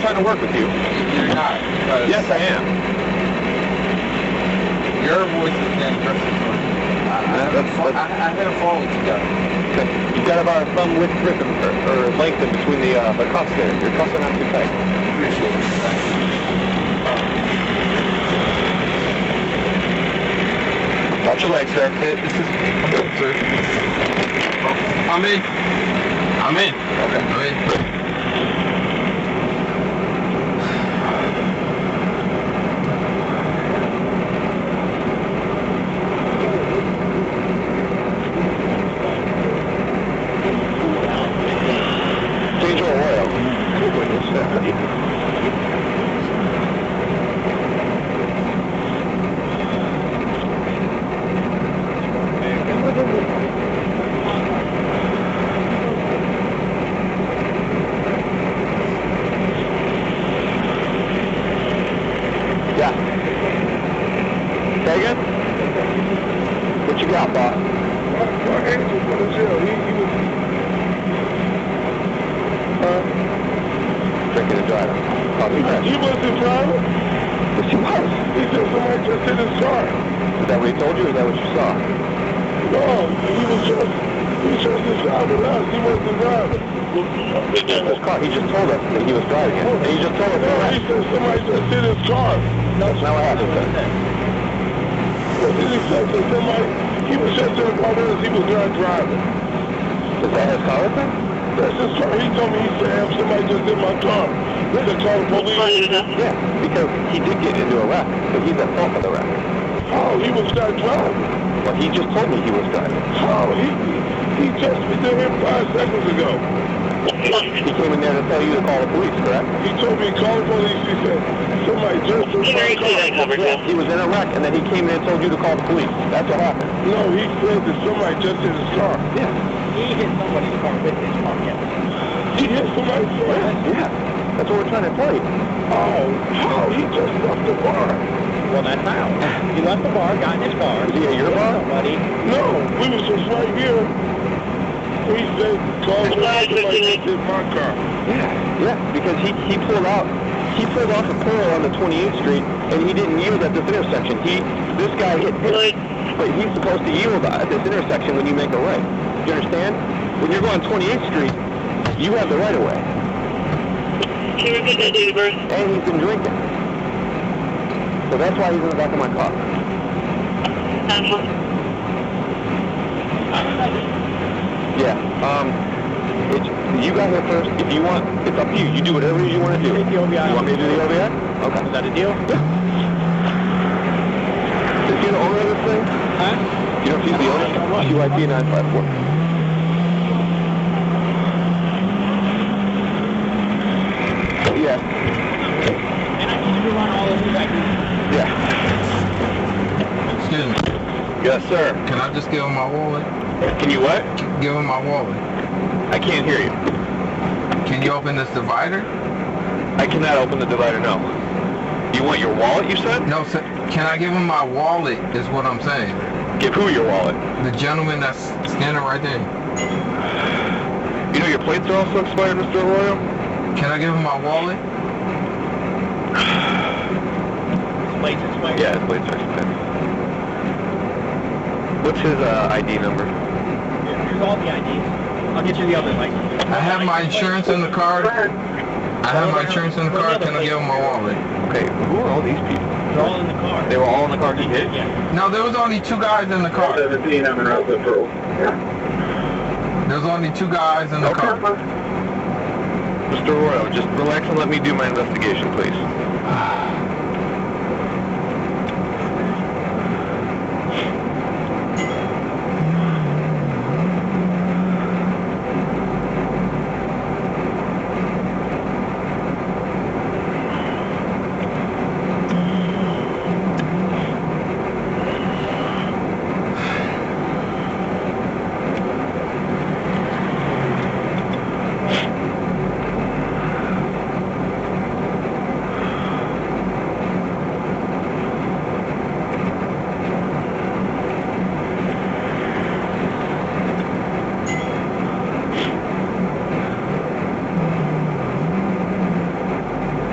trying to work with you. You're not. because Yes, I am. Your voice is then versus mine. I, I, That- haven't that's- fo- I, that's- I haven't followed you guys. You've got about a thumb width rhythm or, or length in between the uh, the cuffs there. Your cuffs are not too tight. Appreciate it. Thank you. Watch your legs there. It- This is sir. I'm in. I'm in. Okay. I'm in. Change your oil. Yeah. Say again? What you got, boss? Huh? Drinking and driving. Probably He crash. wasn't driving. Yes, he was. He just I just hit his car. Is that what he told you, or is that what you saw? No, he was just he was just inside with us. He wasn't driving. This car, he just told us that he was driving it. And he just told us, No, he that. said somebody just hit his car. that's not what happened, sir. But then he said that somebody he was just in the car with us. He was not driving. Is that his car with him? That's his car. He told me he said "Am, somebody just hit my car. We could call the police. Yeah, because he did get into a wreck, but he's at fault for the wreck. How Oh, he was not driving. But he just told me he was driving. How he he just we did him five seconds ago. He came in there to tell you to call the police, correct? He told me call the police. He said somebody just hit my car. Yeah, he was in a wreck, and then he came in and told you to call the police. That's what happened. No, he said that somebody just hit his car. Yeah, He hit somebody's car with his car, yeah. He hit somebody's car. yeah. That's what we're trying to tell you. Oh, how? He just left the bar. Well, that's how. He left the bar, got in his car. Is he at your hit bar? Somebody. No, we was just right here. He said, call me. Somebody just hit my car. Yeah, yeah, because he, he pulled out, he pulled off a curl on the 28th Street, and he didn't yield at this intersection. He, this guy hit him, but he's supposed to yield at this intersection when you make a right. Do you understand? When you're going 28th Street, you have the right of way, Can you repeat that, date of birth? and he's been drinking. So that's why he's in the back of my car. Um, Yeah, um, it's, you got here first. If you want, it's up to you. You do whatever you want to do. Take the OBI. You want me to do the OBI? Okay. Is that a deal? Is he the owner of this thing? Huh? You know if he's the owner? QIP 954. Yeah, And I need to run all those records. yeah. Excuse me. Yes, sir. Can I just give him my wallet? Can you what? Give him my wallet. I can't hear you. Can you open this divider? I cannot open the divider, no. You want your wallet, you said? No, sir. Can I give him my wallet? Is what I'm saying. Give who your wallet? The gentleman that's standing right there. You know your plates are also expired, Mr. Arroyo? Can I give him my wallet? His place is my... Yeah, his plates are expired. What's his uh, ID number? Here's all the IDs. I'll get you the other license. I have my insurance in the car. I have my insurance in the car. Can I give him my wallet? Okay, who are all these people? They're all in the car. They were all in the car he hit? Yeah. No, there was only two guys in the car. There's only two guys in the Okay. car. Mr. Arroyo, just relax and let me do my investigation, please.